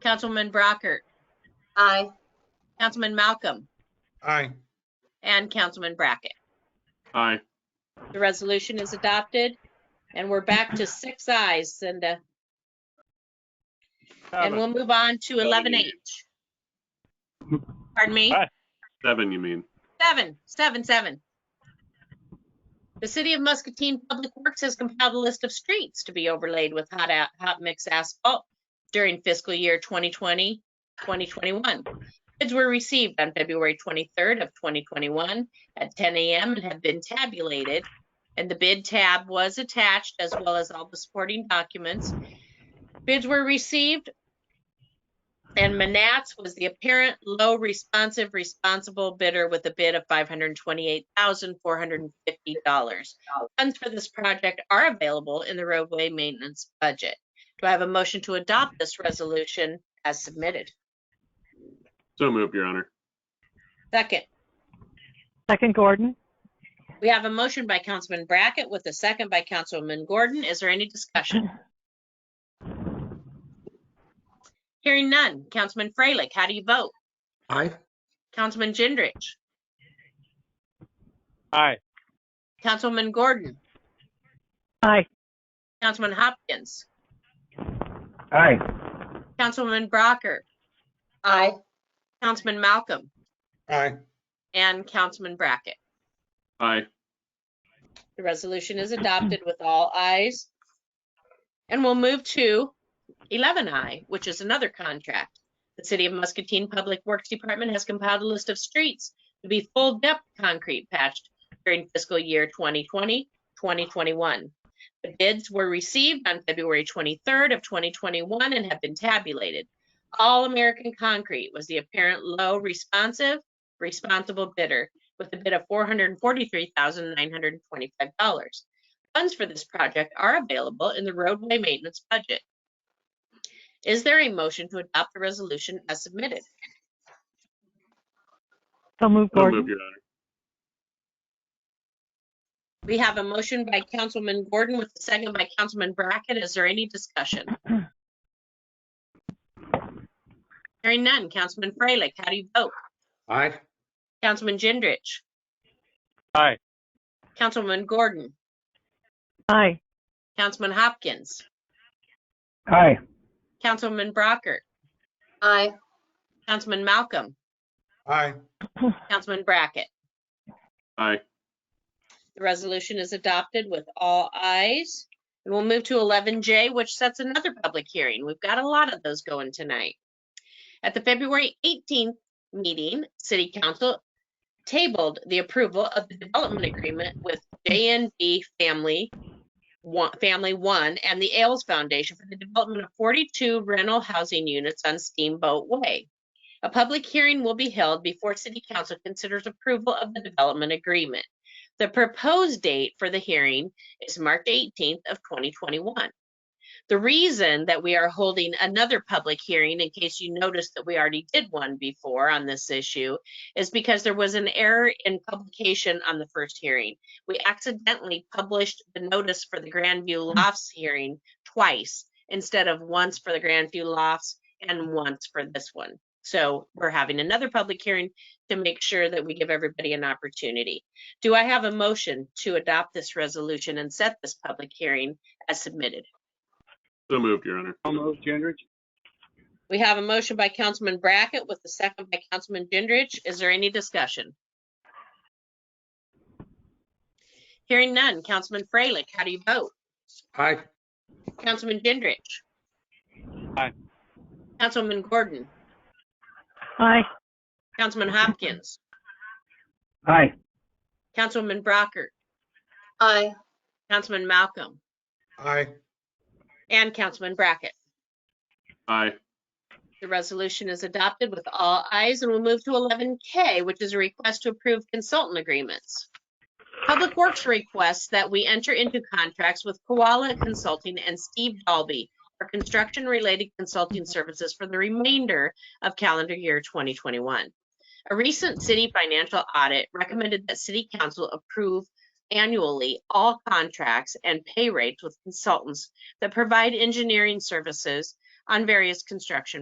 Councilman Brockert, Aye. Councilman Malcolm, Aye. and Councilman Brackett. Aye. The resolution is adopted, and we're back to six ayes, Cinda. And we'll move on to eleven H. Pardon me? Seven, you mean? Seven, seven, seven. The City of Muscatine Public Works has compiled a list of streets to be overlaid with hot, a- hot mix asphalt during fiscal year 2020, 2021. Bids were received on February 23rd of 2021 at 10 a.m. and have been tabulated. And the bid tab was attached as well as all the supporting documents. Bids were received and Manats was the apparent low responsive responsible bidder with a bid of five hundred and twenty-eight thousand, four hundred and fifty dollars. Funds for this project are available in the roadway maintenance budget. Do I have a motion to adopt this resolution as submitted? So moved, Your Honor. Second, Second Gordon. we have a motion by Councilman Brackett with a second by Councilman Gordon. Is there any discussion? Hearing none. Councilman Freilich, how do you vote? Aye. Councilman Gendrich? Aye. Councilman Gordon? Aye. Councilman Hopkins, Aye. Councilman Brocker, Aye. Councilman Malcolm, Aye. and Councilman Brackett. Aye. The resolution is adopted with all ayes. And we'll move to 11I, which is another contract. The City of Muscatine Public Works Department has compiled a list of streets to be full depth concrete patched during fiscal year 2020, 2021. The bids were received on February 23rd of 2021 and have been tabulated. All American Concrete was the apparent low responsive, responsible bidder with a bid of four hundred and forty-three thousand nine hundred and twenty-five dollars. Funds for this project are available in the roadway maintenance budget. Is there a motion to adopt the resolution as submitted? So So move moved, Gordon. Your Honor. We have a motion by Councilman Gordon with a second by Councilman Brackett. Is there any discussion? Hearing none. Councilman Freilich, how do you vote? Aye. Councilman Gendrich? Aye. Councilman Gordon? Aye. Councilman Hopkins? Aye. Councilman Brockert? Aye. Councilman Malcolm? Aye. Councilman Brackett? Aye. The resolution is adopted with all ayes. And we'll move to 11J, which sets another public hearing. We've got a lot of those going tonight. At the February 18th meeting, City Council tabled the approval of the development agreement with JNB Family One, Family One and the Ailes Foundation for the development of 42 rental housing units on Steamboat Way. A public hearing will be held before City Council considers approval of the development agreement. The proposed date for the hearing is March 18th of 2021. The reason that we are holding another public hearing, in case you noticed that we already did one before on this issue, is because there was an error in publication on the first hearing. We accidentally published the notice for the Grandview Lofts hearing twice instead of once for the Grandview Lofts and once for this one. So we're having another public hearing to make sure that we give everybody an opportunity. Do I have a motion to adopt this resolution and set this public hearing as submitted? So moved, Your Honor. So moved, Gendrich. We have a motion by Councilman Brackett with a second by Councilman Gendrich. Is there any discussion? Hearing none. Councilman Freilich, how do you vote? Aye. Councilman Gendrich? Aye. Councilman Gordon? Aye. Councilman Hopkins? Aye. Councilman Brockert? Aye. Councilman Malcolm? Aye. And Councilman Brackett? Aye. The resolution is adopted with all ayes and we'll move to 11K, which is a request to approve consultant agreements. Public Works requests that we enter into contracts with Koala Consulting and Steve Dalby for construction-related consulting services for the remainder of calendar year 2021. A recent city financial audit recommended that city council approve annually all contracts and pay rates with consultants that provide engineering services on various construction